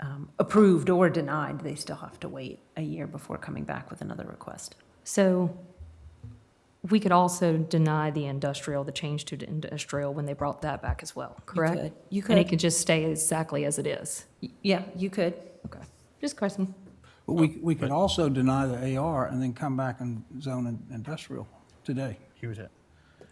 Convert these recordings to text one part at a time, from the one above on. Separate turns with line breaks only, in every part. um, approved or denied, they still have to wait a year before coming back with another request.
So we could also deny the industrial, the change to the industrial when they brought that back as well, correct?
You
And it
could,
could just stay exactly as it is.
Y- yeah, you could.
Okay. Just question.
But we, we could also deny the AR and then come back and zone in- industrial today.
He would have,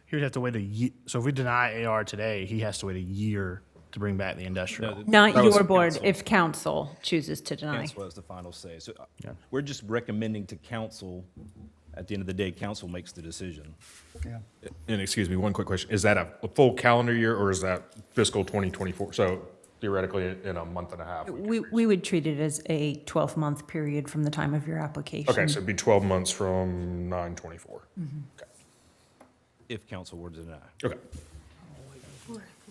he would have to wait a year. So if we deny AR today, he has to wait a year to bring back the industrial.
Not
That was
your board,
canceled.
if council chooses to deny.
Council has the final say. So uh, we're just recommending to council, at the end of the day, council makes the decision.
Yeah.
And excuse me, one quick question. Is that a a full calendar year or is that fiscal 2024? So theoretically, in a month and a half? we could-
We, we would treat it as a 12-month period from the time of your application.
Okay, so it'd be 12 months from 9/24.
Mm-hmm.
Okay.
If council were to deny.
Okay.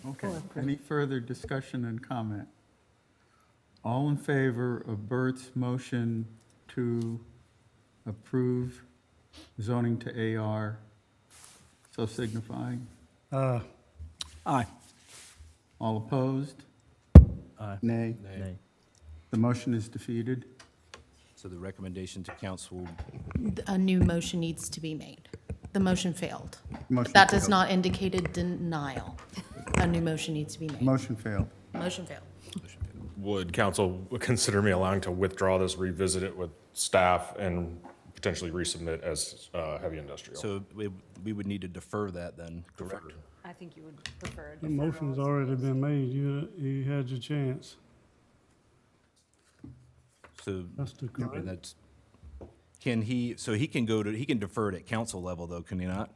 Okay, any further discussion and comment? All in favor of Bert's motion to approve zoning to AR, so signifying?
Aye.
All opposed? Nay.
Nay.
The motion is defeated.
So the recommendation to council,
a new motion needs to be made. The motion failed.
Motion
That does
failed.
not indicate a denial. A new motion needs to be made.
Motion failed.
Motion failed.
Would council consider me allowing to withdraw this, revisit it with staff, and potentially resubmit as uh, heavy industrial?
so we, we would need to defer that then, correct?
I think you would prefer.
The motion's already been made, you, you had your chance.
So,
That's the
and
correct.
that's, can he, so he can go to, he can defer it at council level though, can he not?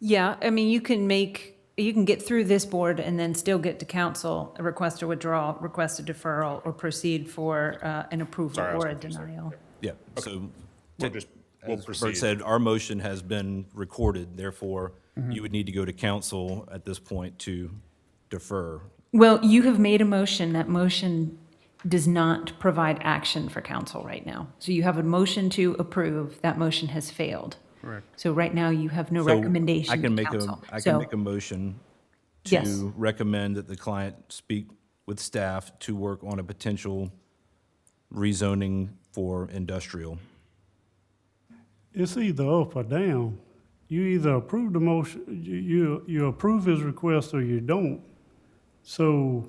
Yeah, I mean, you can make, you can get through this board and then still get to council, a request a withdrawal, request a deferral, or proceed for uh, an approval
Sorry, I was
or a
confused there.
denial.
Yeah, so.
We'll just, we'll
As Bert
proceed.
said, our motion has been recorded, therefore
Mm-hmm.
you would need to go to council at this point to defer.
Well, you have made a motion. That motion does not provide action for council right now. So you have a motion to approve. That motion has failed. Correct. So right now, you have no
So
recommendation
I can
to
make a,
council.
I
So-
can make a motion
Yes.
to recommend that the client speak with staff to work on a potential rezoning for industrial.
It's either up or down. You either approve the motion, you, you, you approve his request or you don't. So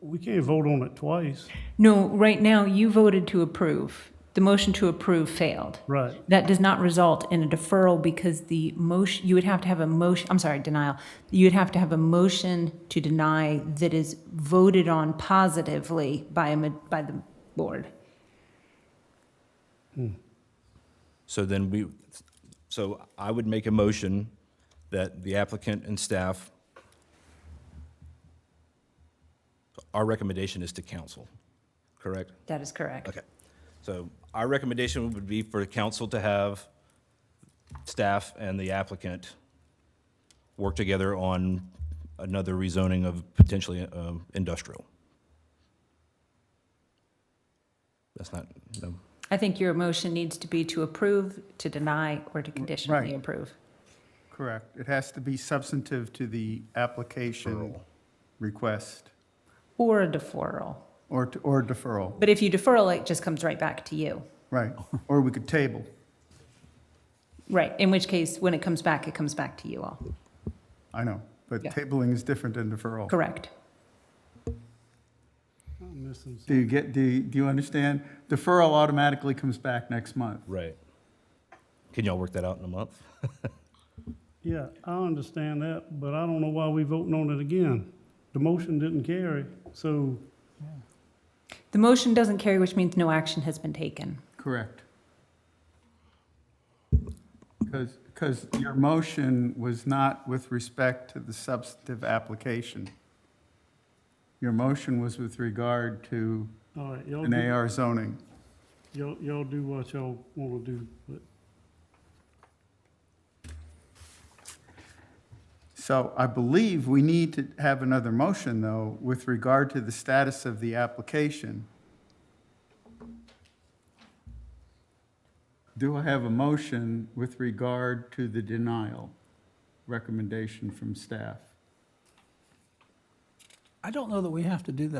we can't vote on it twice.
No, right now, you voted to approve. The motion to approve failed.
Right.
That does not result in a deferral because the motion, you would have to have a motion, I'm sorry, denial. You would have to have a motion to deny that is voted on positively by, a ma- by the board.
So then we, so I would make a motion that the applicant and staff, our recommendation is to council, correct?
That is correct.
Okay. So our recommendation would be for the council to have staff and the applicant work together on another rezoning of potentially uh, industrial. That's not, no.
I think your motion needs to be to approve, to deny, or to conditionally
Right.
approve.
Correct. It has to be substantive to the application request
Or a deferral.
or, to- or deferral.
But if you deferral, it just comes right back to you.
Right, or we could table.
Right, in which case, when it comes back, it comes back to you all.
I know, but
Yeah.
tabling is different than deferral.
Correct.
I'm missing
Do you get, do, you- do you understand? Deferral automatically comes back next month.
Right. Can y'all work that out in a month?
Yeah, I understand that, but I don't know why we voting on it again. The motion didn't carry, so
The motion doesn't carry, which means no action has been taken.
Correct. Because, because your motion was not with respect to the substantive application. Your motion was with regard to
all right, y'all
an
do,
AR zoning.
y'all, y'all do what y'all want to do, but
So I believe we need to have another motion, though, with regard to the status of the application. Do I have a motion with regard to the denial recommendation from staff?
I don't know that we have to do that.